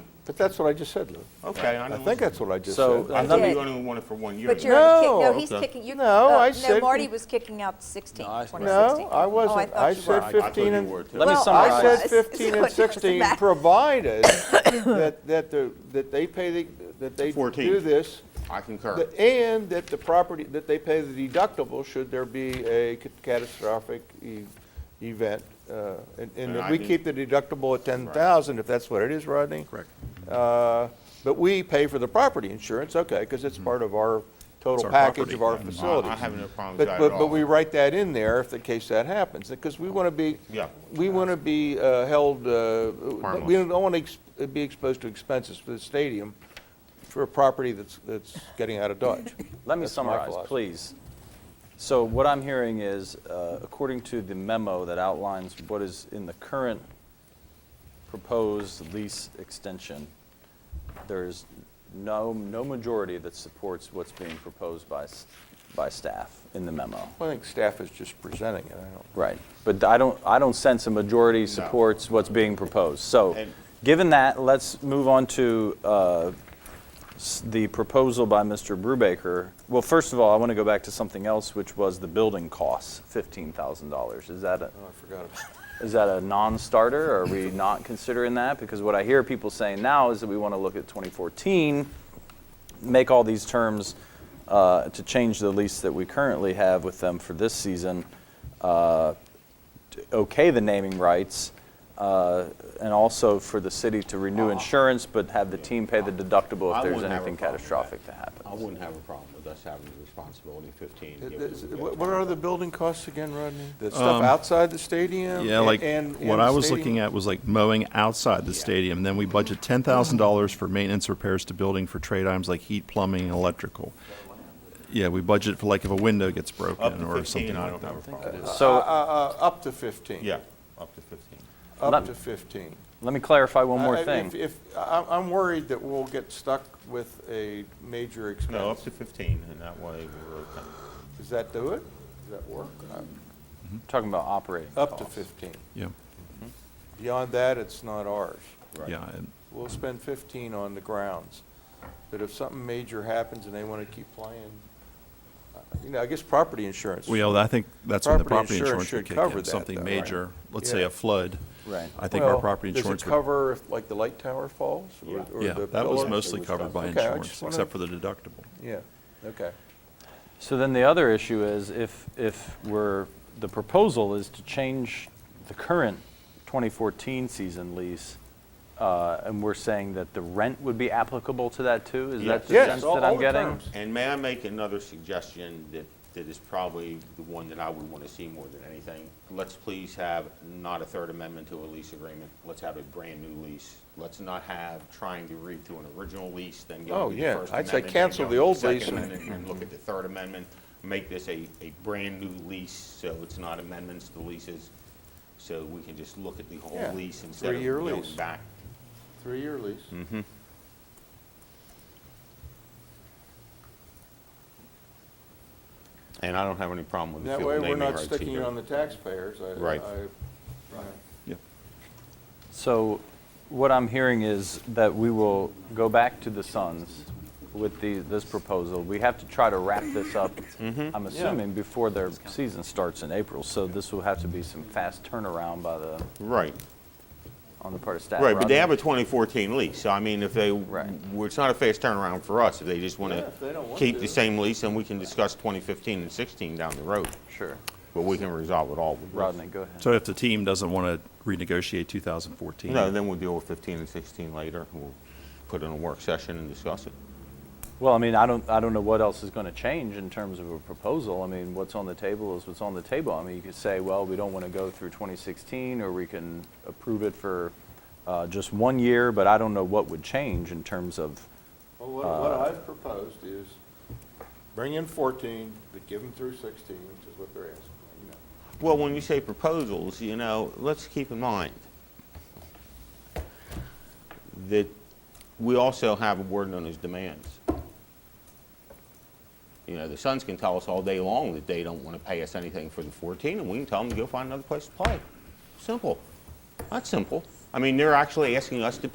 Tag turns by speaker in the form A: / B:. A: But that's what I just said, Lou.
B: Okay, I
A: I
B: know.
A: think that's what I just
C: So,
A: said.
B: I thought
D: did.
B: you only wanted for one year.
D: But
B: though.
D: you're, kick- no,
A: No,
D: he's
C: okay.
D: kicking, you
A: No, I
D: No,
A: said-
D: Marty was kicking out 16,
C: No, I-
D: 2016.
A: No, I wasn't.
D: Oh,
A: I
D: I thought
A: said
B: I- I thought
A: 15
B: you
A: and...
B: were, too.
C: Let me
D: Well, I
C: summarize.
A: I said
D: It's- it's
A: 15 and
D: what goes
A: 16,
D: back.
A: provided that, that, the- that they pay, the that they do
B: 14.
A: this,
B: I concur.
A: that- and that the property, that they pay the deductible should there be a ca- catastrophic e- event, uh, and- and
B: And
A: that
B: I
A: we
B: think-
A: keep the deductible at 10,000, if that's what it is, Rodney? Correct. But we pay for the property insurance, okay, because
B: Mm-hmm.
A: it's part of our total package of our
B: I- I
A: facilities.
B: have no problem with
A: But-
B: that
A: but-
B: at
A: But
B: all.
A: we write that in there if the case that happens, because we want to be,
B: Yeah.
A: we want to be uh, held, uh, we
B: Harmless.
A: don't want to be exposed to expenses for the stadium for a property that's, that's getting out of Dodge.
C: Let me
A: That's my
C: summarize,
A: philosophy.
C: please. So what I'm hearing is, uh, according to the memo that outlines what is in the current proposed lease extension, there is no, no majority that supports what's being proposed by, s- by staff in the memo.
A: I think staff is just presenting it, I don't.
C: Right, but I don't, I don't sense a majority supports what's being proposed. So,
B: And-
C: given that, let's move on to uh, s- the proposal by Mr. Brubaker. Well, first of all, I want to go back to something else, which was the building costs, $15,000. Is that a,
A: Oh, I forgot about
C: is that a non-starter? Are we not considering that? Because what I hear people saying now is that we want to look at 2014, make all these terms uh, to change the lease that we currently have with them for this season, uh, to okay the naming rights, uh, and also for the city to renew insurance, but have the team pay the deductible
E: Uh-huh.
C: if
E: I
C: there's
E: wouldn't have a
C: anything
E: problem with that.
C: catastrophic that
E: I
C: happens.
E: wouldn't have a problem with us having the responsibility of 15.
A: Th-
E: give
A: th-
E: it to the
A: What
E: guys.
A: what are the building costs again, Rodney? The stuff outside the stadium?
F: Yeah,
A: and-
F: like
A: and-
F: what
A: and
F: I
A: the
F: was
A: stadium?
F: looking at was like mowing outside the stadium. Then we budget ten thousand dollars for maintenance repairs to building for trade items like heat, plumbing, and electrical. Yeah, we budget for like if a window gets
B: Up
F: broken
B: to
F: or
B: 15,
F: something
B: I
F: like
B: don't
F: that.
B: have a problem.
A: Uh,
C: So
A: uh, uh, Up to 15.
B: Yeah, up to 15.
A: Up
C: Let-
A: to 15.
C: let me clarify
E: Uh,
C: one
A: I-
C: more
A: I- if-
C: thing.
A: If, I- I'm worried that we'll get stuck with a major
B: No, up
A: expense.
B: to 15, and that way we're okay.
A: Does that do it? Does that work? Uh,
C: Talking about operating
A: Up to
C: costs.
A: 15.
F: Yeah,
A: Beyond that, it's not ours.
F: yeah, and-
A: We'll spend 15 on the grounds. But if something major happens and they want to keep playing, uh, you know, I guess property insurance.
F: well, I think that's when the
A: Property
F: property
A: insurance
F: insurance would
A: should
F: kick
A: cover
F: in,
A: that, though,
F: something
A: right?
F: major, let's say
A: Yeah.
F: a flood.
C: Right.
F: I think our
A: Well,
F: property
A: Does
F: insurance
A: it
F: would,
A: cover if, like, the light tower falls? or- or
F: yeah,
A: the
F: that was
A: pillar?
F: mostly covered by
A: Okay, I just
F: insurance,
A: wanna-
F: except for the deductible.
A: Yeah, okay.
C: So then the other issue is if, if we're, the proposal is to change the current 2014 season lease, uh, and we're saying that the rent would be applicable to that too? Is that
B: Yes.
C: the
A: Yes,
C: sense
A: all-
C: that
A: all
C: I'm
A: the
C: getting?
A: terms.
E: And may I make another suggestion that, that is probably the one that I would want to see more than anything? Let's please have not a third amendment to a lease agreement. Let's have a brand-new lease. Let's not have trying to read through an original lease, then
A: Oh,
E: go to the
A: yeah.
E: First Amendment.
A: I'd say
E: then
A: cancel
E: go
A: the
E: to
A: old
E: Second
A: lease and-
E: Amendment, And look at the Third Amendment, make this a, a brand-new lease, so it's not amendments to leases. So we can just look at the whole
A: Yeah,
E: lease instead of
A: three-year
E: going
A: lease.
E: back.
A: Three-year lease.
F: Mm-hmm.
E: And I don't have any problem with the
A: That
E: field
A: way,
E: naming
A: we're not
E: rights
A: sticking it
E: either.
A: on the taxpayers. I-
E: Right.
A: I-
F: Yeah.
C: So what I'm hearing is that we will go back to the Suns with the, this proposal. We have to try to wrap this up,
B: Mm-hmm.
C: I'm assuming, before their season starts in April. So this will have to be some fast turnaround by the,
B: Right,
C: on the part of staff.
B: right, but they
C: Rodney.
B: have a 2014 lease, so I mean, if they,
C: Right.
B: well, it's not a fast turnaround for us. If they just want
A: Yeah, if they don't
B: to
A: want
B: keep
A: to.
B: the same lease, then we can discuss 2015 and 16 down the road.
C: Sure.
B: But we can resolve it all with this.
C: Rodney, go ahead.
F: So if the team doesn't want to renegotiate two thousand fourteen.
B: No, then we'll deal with 15 and 16 later. We'll put in a work session and discuss it.
C: Well, I mean, I don't, I don't know what else is going to change in terms of a proposal. I mean, what's on the table is what's on the table. I mean, you could say, well, we don't want to go through 2016, or we can approve it for uh, just one year, but I don't know what would change in terms of,
A: Well, what, what I've proposed is bring in 14, but give them through 16, which is what they're asking, you know.
B: Well, when we say proposals, you know, let's keep in mind that we also have a word known as demands. You know, the Suns can tell us all day long that they don't want to pay us anything for the 14, and we can tell them to go find another place to play. Simple. That's simple. I mean, they're actually asking us to